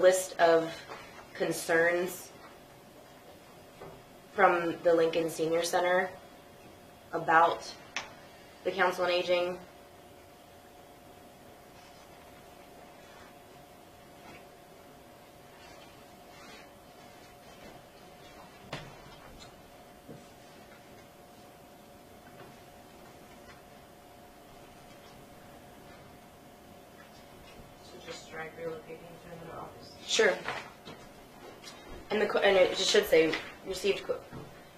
list of concerns from the Lincoln Senior Center about the Council on Aging. So just strike relocating to another office. Sure. And the, co- and it should say, received, co-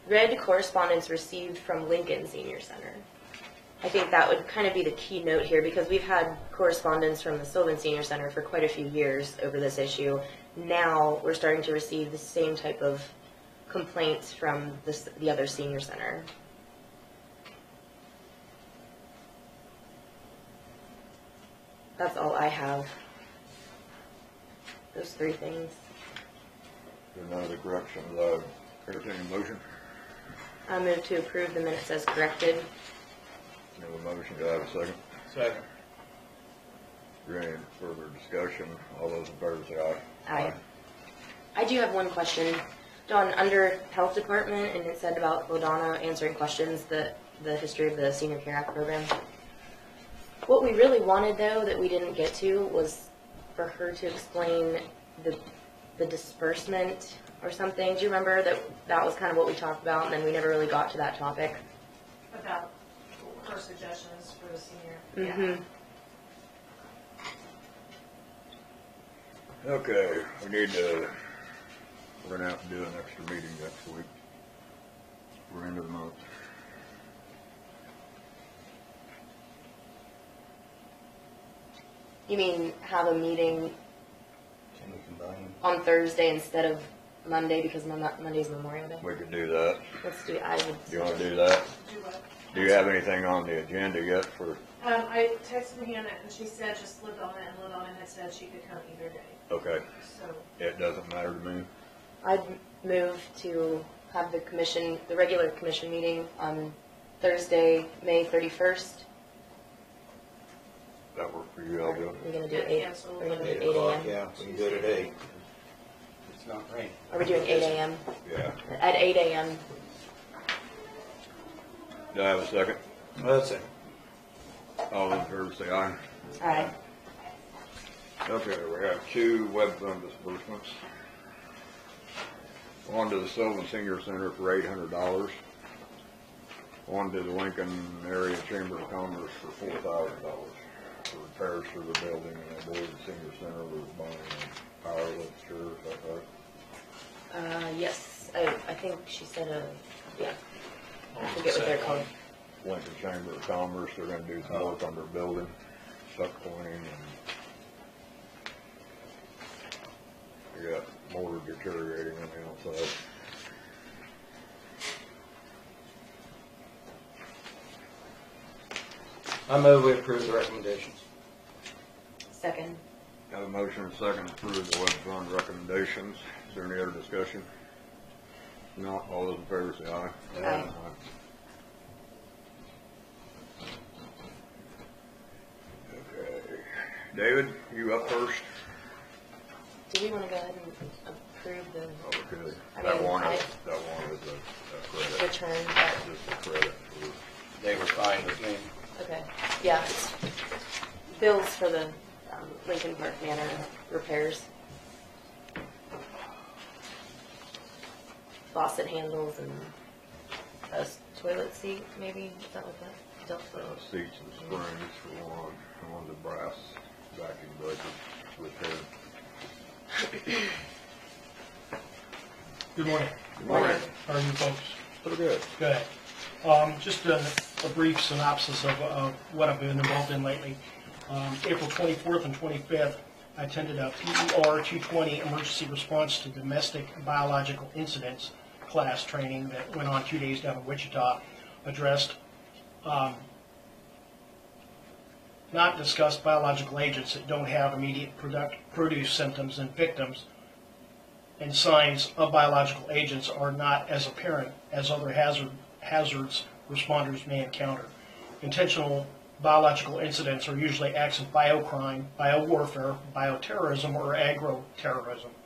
read correspondence received from Lincoln Senior Center. I think that would kind of be the key note here, because we've had correspondence from the Sylvan Senior Center for quite a few years over this issue. Now, we're starting to receive the same type of complaints from the, s- the other senior center. That's all I have. Those three things. There are no other corrections, uh, entertain a motion, I move to approve the minutes as corrected. you have a motion, do I have a second? Second. Is there Any further discussion, all those in favor say aye. Aye. I do have one question. Dawn, under Health Department, and it said about Ladonna answering questions, the, the history of the Senior Care Act program. What we really wanted, though, that we didn't get to was for her to explain the, the disbursement or something. Do you remember that, that was kind of what we talked about, and then we never really got to that topic? About her suggestions for the senior. Mm-hmm. Okay, we need to, we're gonna have to do an extra meeting next week. We're into the month. You mean have a meeting Can we combine? on Thursday instead of Monday because Mon- Monday's Memorial Day. We could do that, Let's do, I would. you wanna do that? Do what? Do you have anything on the agenda yet for, Um, I texted Hannah and she said just live on it and live on it had said she could come either day, okay, so. it doesn't matter to me, I'd move to have the commission, the regular commission meeting on Thursday, May thirty-first. that work for you, Aljo? We're gonna do eight, Cancel. we're gonna do Eight eight o'clock, AM. yeah, we can do it at eight. It's not raining. Are we doing eight AM? Yeah, At eight AM, do I have a second? That's it. All those in favor say aye. alright. Okay, we have two web fund disbursements. One to the Sylvan Senior Center for eight hundred dollars. One to the Lincoln Area Chamber of Commerce for four thousand dollars for repairs to the building, and I believe the senior center was buying a power uh, lift, is that right? Uh, yes, I, I think she said, uh, yeah. I forget what they're called. Lincoln Chamber of Commerce, they're gonna do some work on their building, suck pointing and they got motor deteriorating on the outside. I move we approve the recommendations. Second. Got a motion and second to approve the web fund recommendations. Is there any other discussion? Not, all those in favor say aye. Aye. Okay. David, you up first? Do we wanna go ahead and approve the Okay. I Oh, That mean, one I- is, that one is a a credit, return, but, just a credit for They were fine with me. okay, yeah. it's Bills for the um, Lincoln Park Manor repairs. Faucet handles and a s- toilet seat, maybe, is that what that, dealt uh, with? seats and springs for one, and one of the brass vacuum breakers repaired. Good morning. Good morning. How are you folks? Pretty good. Good. Um, Just a a brief synopsis of of what I've been involved in lately. Um, April 24th and 25th, I attended a E PER 220 Emergency Response to Domestic Biological Incidents class training that went on two days down in Wichita, addressed um, not discussed biological agents that don't have immediate product, produce symptoms in victims, and signs of biological agents are not as apparent as other hazard, hazards responders may encounter. Intentional biological incidents are usually acts of biocrime, biowarfare, bioterrorism, or agroterrorism.